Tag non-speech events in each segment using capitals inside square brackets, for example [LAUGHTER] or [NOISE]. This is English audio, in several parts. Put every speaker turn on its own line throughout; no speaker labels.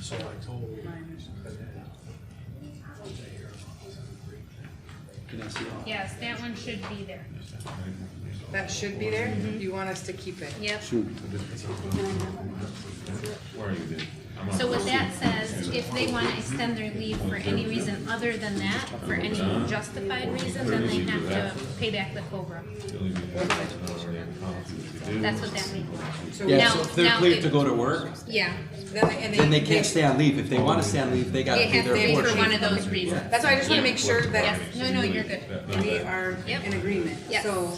So I told.
Can I see all?
Yes, that one should be there.
That should be there? You want us to keep it?
Yep.
Shoot.
Where are you, Dave? I'm on
So what
the-
that says, if they wanna extend their leave for any reason other than that, for any justified reason, then they have to pay back the COBRA.
Really good. I don't know what policy we could do.
That's what that means.
So
Yeah,
now,
so
Now-
if they're
now
cleared
it-
to go to work,
Yeah,
then, they- and they.
then they can't stay on leave. If they wanna stay on leave, they
they
gotta do
have to
their
pay for
portion.
one of those reasons.
That's why I just wanna make sure that
Yes, no, no, you're good.
That- no,
we
that-
are
Yep.
in agreement.
Yes.
So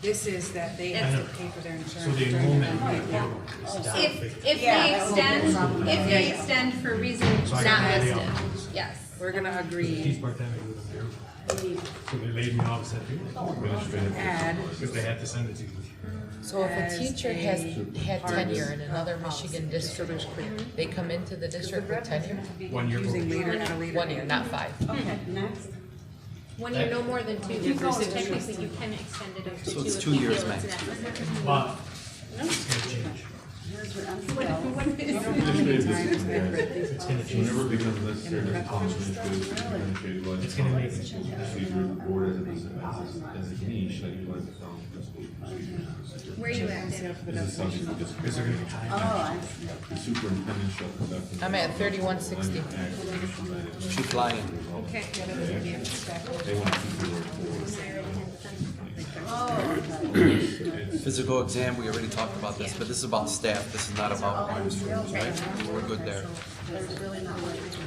this is that they have to pay for their insurance.
So the
during
enrollment.
Oh, Yeah.
If, if they extend, if they extend for reasons
So I
not
got the
listed,
options.
yes.
We're gonna
He's
agree,
part-time with them here. So they laid me off, said,
Administrative.
add,
because they had to send it to you.
So if
As
a teacher has
a
had
part
tenure in another
of
Michigan
policy.
district, they come into the district with tenure,
One year.
using later at a later.
one year,
date.
not five.
Okay,
[LAUGHS]
next.
One year, no more than two, so technically you can extend it up to two.
So it's
if
two
you
years
feel it's that.
max.
But it's gonna change. It's gonna change.
Whenever it becomes necessary to accomplish administrative and administrative license.
It's gonna make-
Procedure or as a, as a, as a niche, like you like to tell them, principal procedures.
Where you at, Dan?
This is something that just-
Is there gonna be time?
The superintendent shall conduct.
I'm at 3160.
She's flying.
Okay. yeah, that's a game. Back.
They want to keep the word
Physical exam, we already talked about this, but this is about staff. This is not about primary schools, right? We're good there.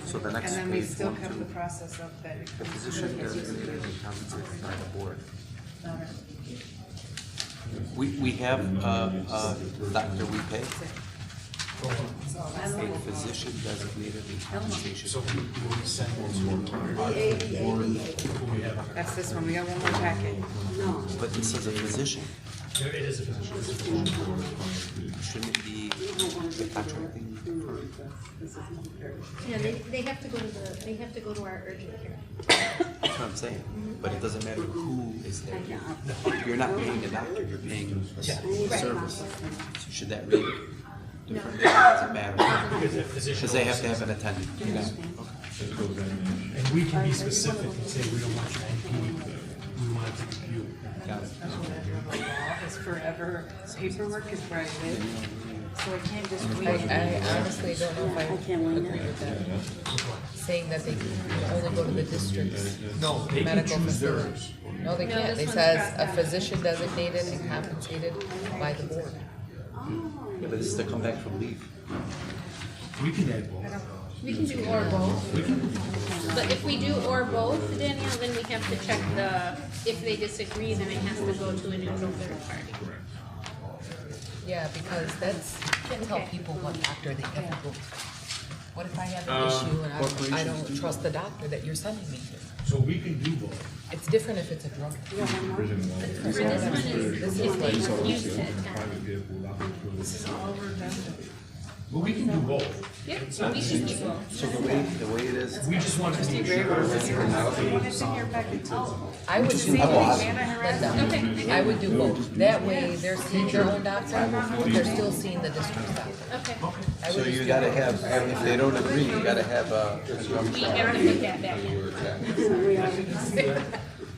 So
[LAUGHS]
the
And
next
then we
page,
still kept the process up that. it
the
comes
position
through.
is gonna be compensated by the board. We, we have, uh, uh, Dr. We pay. A physician designated a compensation.
So we we send one more time. We have-
That's this one, we got one more packet.
But this is a physician,
It is a position.
shouldn't it be the contracting?
Yeah, they, they have to go to the, they have to go to our urgent care.
That's what I'm saying, but it doesn't matter who is there. You're not paying the doctor, you're paying the service. So should that read differently? Doesn't matter,
Because a physician.
because they have to have an attendant. you know?
Physical examination.
And we can be specific and say, we don't want you to compute, we want it to compute.
Got it.
It's forever, paperwork is where I live, so I can't just
I,
wait.
I honestly don't know if I agree with that, saying that they can only go to the district.
No, they can
Medical
choose
facility.
theirs.
No, they
No,
can't,
this
it
one's
says
crossed
a
out.
physician designated and compensated by the board.
Yeah, but this is to come back from leave.
We can add both.
We can do or both. But if we do or both, Danielle, then we have to check the, if they disagree, then it has to go to a neutral third party.
Yeah, because that's, can't tell
Okay.
people what doctor they have to go to. What if I have
Um,
an issue and I, I don't trust the doctor that you're sending me to?
So we can do both.
It's different if it's a drug.
Prison law.
For this one is if they refuse to attend.
Private vehicle allowed.
But we can do both.
Yeah, we can do both.
So the way, the way it is,
We just want to make sure.
I would do both. Linda. I would do both. That way, they're seeing their own doctor, but they're still seeing the district's doctor.
Okay,
I
so
would
you
just do
gotta
both.
have, if they don't agree, you gotta have a.
we have to put that back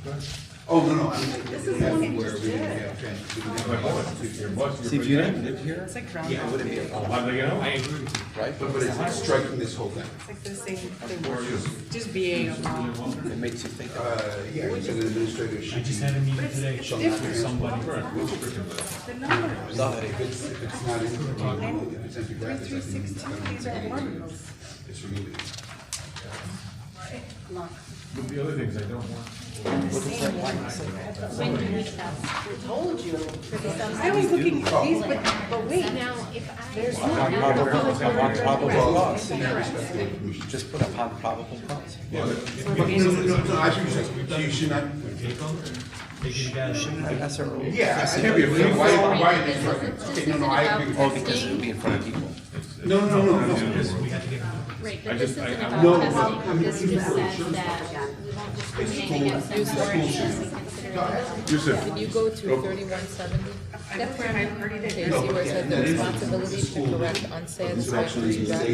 in.
Oh, no, no. I'm-
My boss, your boss, your.
See, if you didn't live here,
It's like ground, it's
wouldn't be a problem,
How'd they get out?
right?
But it's like striking this whole thing.
like the same thing, just BA alone.
It makes you think.
Uh, yeah, it's an
I
administrative should
just
be,
had a meeting today with somebody.
Without it, it's-
if it's not in the model, if it's empty brackets, I think it's kind
These are one of those.
of- it's removing it.
But the other things I don't want.
When do we stop?
Told you. I was looking at these, but, but wait,
Now, if I,
Probable cause, see, just put upon probable cause.
No, no, no, no, I should just, so you should not,
Take them, take it again.
That's our rule.
yeah, I can't be afraid, why, why are they striking? Okay, no, no, I agree.
Oh, because it would be in front of people.
No, no, no, no.
Because we have to get them.
right, but this isn't
no,
about testing, this just says that we won't discriminate against them for it unless we consider it.
Yusuf,
Can you go to thirty-one seventy?
that's where I already did.
Okay, you see where it said the responsibility to correct unsatisfactory doctor